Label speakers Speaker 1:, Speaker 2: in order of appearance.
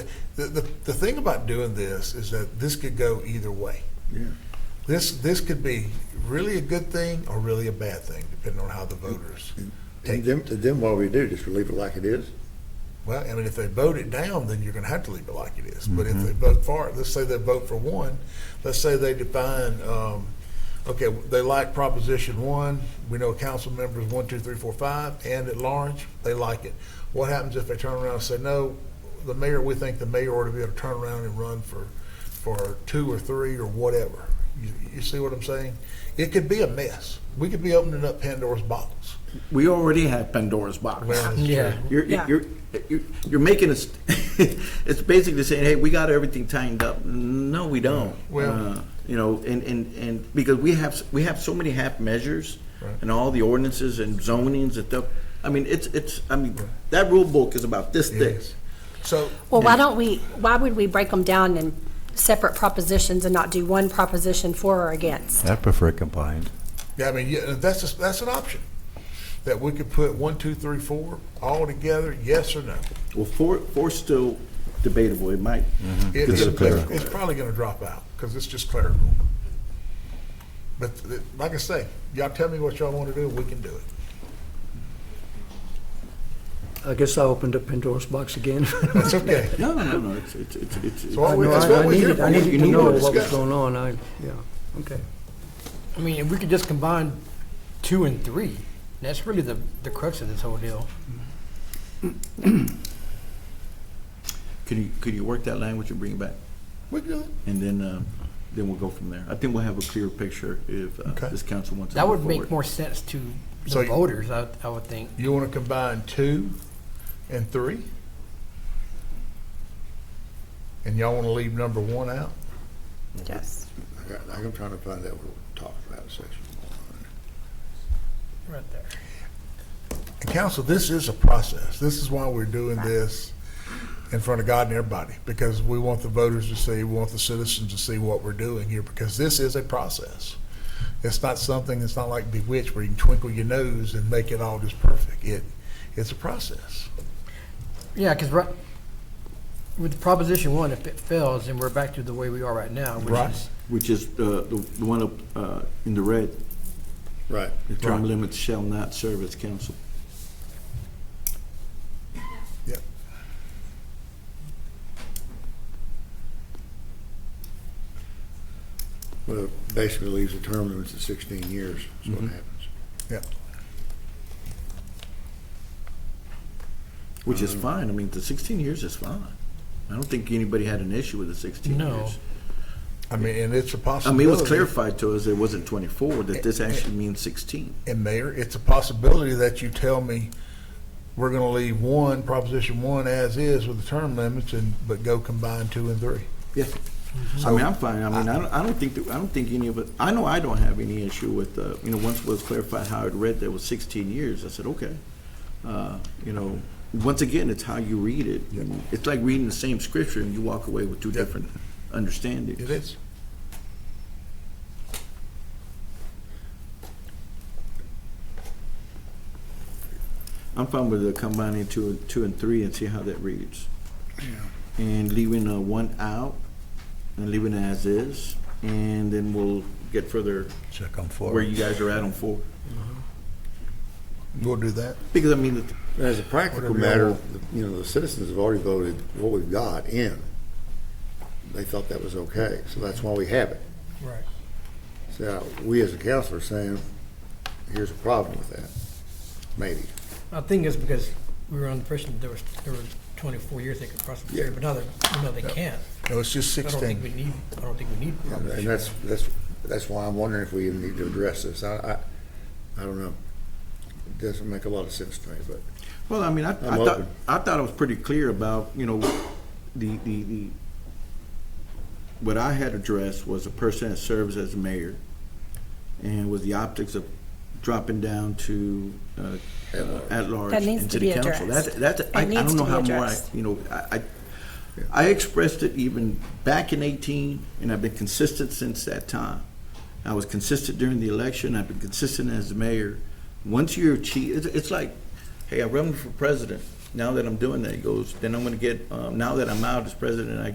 Speaker 1: The, the, the thing about doing this is that this could go either way.
Speaker 2: Yeah.
Speaker 1: This, this could be really a good thing or really a bad thing, depending on how the voters
Speaker 2: And
Speaker 1: take it.
Speaker 2: then, then what we do, just leave it like it is?
Speaker 1: Well, I mean, if they vote it down, then you're gonna have to leave it like it is. But if they vote for it, let's say they vote for one, let's say they define, um, okay, they like Proposition One, we know council members one, two, three, four, five, and at large, they like it. What happens if they turn around and say, no, the mayor, we think the mayor ought to be able to turn around and run for, for two or three or whatever? You, you see what I'm saying? It could be a mess. We could be opening up Pandora's box.
Speaker 3: We already have Pandora's box.
Speaker 1: Well, it's
Speaker 4: Yeah.
Speaker 1: true.
Speaker 3: You're,
Speaker 4: Yeah.
Speaker 3: you're, you're, you're making us, it's basically saying, hey, we got everything tightened up. No, we don't.
Speaker 1: Well-
Speaker 3: Uh, You know, and, and, and because we have, we have so many half measures
Speaker 1: Right.
Speaker 3: and all the ordinances and zonings and stuff. I mean, it's, it's, I mean, that rule book is about this
Speaker 1: It
Speaker 3: thick.
Speaker 1: is. So,
Speaker 5: Well, why don't we, why would we break them down in separate propositions and not do one proposition for or against?
Speaker 6: I prefer combined.
Speaker 1: Yeah, I mean, yeah, that's, a- that's an option, that we could put one, two, three, four, all together, yes or no.
Speaker 3: Well, four, four's still debatable. It might.
Speaker 1: Mm-hmm. It-
Speaker 6: It's
Speaker 1: It's
Speaker 6: clerical.
Speaker 1: it's probably gonna drop out, because it's just clerical. But th- like I say, y'all tell me what y'all wanna do, we can do it.
Speaker 4: I guess I opened up Pandora's box again.
Speaker 1: That's okay.
Speaker 3: No, no, no, it's, it's, it's, it's.
Speaker 1: So all
Speaker 4: I
Speaker 1: we-
Speaker 4: know,
Speaker 1: that's
Speaker 4: I-
Speaker 1: what
Speaker 4: I
Speaker 1: we're here
Speaker 4: needed,
Speaker 1: for.
Speaker 4: I needed to
Speaker 1: We
Speaker 4: know
Speaker 1: need
Speaker 4: what was
Speaker 1: discuss.
Speaker 4: going on, I, yeah, okay.
Speaker 7: I mean, if we could just combine two and three, that's really the, the crux of this whole deal.
Speaker 3: Could you, could you work that language and bring it back?
Speaker 1: We good.
Speaker 3: And then, um, then we'll go from there. I think we'll have a clear picture if uh,
Speaker 1: Okay.
Speaker 3: this council wants to
Speaker 7: That
Speaker 3: move
Speaker 7: would make
Speaker 3: forward.
Speaker 7: more sense to
Speaker 1: So
Speaker 7: the
Speaker 1: you-
Speaker 7: voters, I, I would think.
Speaker 1: You wanna combine two and three? And y'all wanna leave number one out?
Speaker 8: Yes.
Speaker 2: I got, like, I'm trying to find out what we're talking about, in section one.
Speaker 7: Right there.
Speaker 1: And council, this is a process. This is why we're doing this in front of God and everybody, because we want the voters to see, we want the citizens to see what we're doing here, because this is a process. It's not something, it's not like bewitched where you can twinkle your nose and make it all just perfect. It, it's a process.
Speaker 7: Yeah, because right, with Proposition One, if it fails, then we're back to the way we are right now,
Speaker 1: Right.
Speaker 7: which is
Speaker 3: Which is uh, the the one up uh, in the red,
Speaker 2: Right.
Speaker 3: the term
Speaker 1: Right.
Speaker 3: limits shall not serve as council.
Speaker 1: Yep.
Speaker 2: Well, it basically leaves the term limits at sixteen years, is what
Speaker 3: Mhm.
Speaker 2: happens.
Speaker 1: Yep.
Speaker 3: Which is fine, I mean, the 16 years is fine. I don't think anybody had an issue with the 16
Speaker 7: No.
Speaker 3: years.
Speaker 1: I mean, and it's a
Speaker 3: I
Speaker 1: possibility.
Speaker 3: mean, it was clarified to us, it wasn't 24, that this actually means 16.
Speaker 1: And Mayor, it's a possibility that you tell me, we're gonna leave one, Proposition One as is with the term limits and, but go combine two and three.
Speaker 3: Yeah. I mean, I'm fine, I mean, I don't, I don't think, that- I don't think any of it, I know I don't have any issue with, uh, you know, once it was clarified how it read, that was 16 years, I said, okay. Uh, You know, once again, it's how you read it. It's like reading the same scripture and you walk away with two different understandings.
Speaker 1: It is.
Speaker 3: I'm fine with the combining two, and- two and three and see how that reads. And leaving uh, one out and leaving it as is, and then we'll get further
Speaker 6: Check on four.
Speaker 3: where you guys are at on four.
Speaker 1: We'll do that.
Speaker 3: Because I mean, the-
Speaker 2: As a practical
Speaker 1: Whatever
Speaker 2: matter, the- you know, the citizens have already voted what we've got in. They thought that was okay, so that's why we have it.
Speaker 7: Right.
Speaker 2: So we as a council are saying, here's a problem with that, maybe.
Speaker 7: I think it's because we were on the impression that there was, there were twenty-four years they could possibly
Speaker 2: Yeah.
Speaker 7: serve, but now they, now they can't.
Speaker 1: No, it's just
Speaker 7: I don't think we
Speaker 1: sixteen.
Speaker 7: need, I don't think we need Proposition.
Speaker 2: And that's, that's, that's why I'm wondering if we even need to address this. I, I, I don't know. It doesn't make a lot of sense to me, but.
Speaker 3: well, I mean, I, I
Speaker 2: I'm
Speaker 3: thought,
Speaker 2: open.
Speaker 3: I thought I was pretty clear about, you know, the, the, the, what I had addressed was a person that serves as mayor and was the optics of dropping down to, uh,
Speaker 2: At
Speaker 3: uh,
Speaker 2: large.
Speaker 3: at large
Speaker 5: That needs
Speaker 3: and
Speaker 5: to
Speaker 3: city
Speaker 5: be
Speaker 3: council. That's,
Speaker 5: addressed.
Speaker 3: that's, I, I
Speaker 5: It needs
Speaker 3: don't know
Speaker 5: to be
Speaker 3: how more, I-
Speaker 5: addressed.
Speaker 3: you know, I, I, I expressed it even back in eighteen, and I've been consistent since that time. I was consistent during the election, I've been consistent as the mayor. Once you're chief, it's, it's like, hey, I run for president, now that I'm doing that, it goes, then I'm gonna get, um, now that I'm out as president, I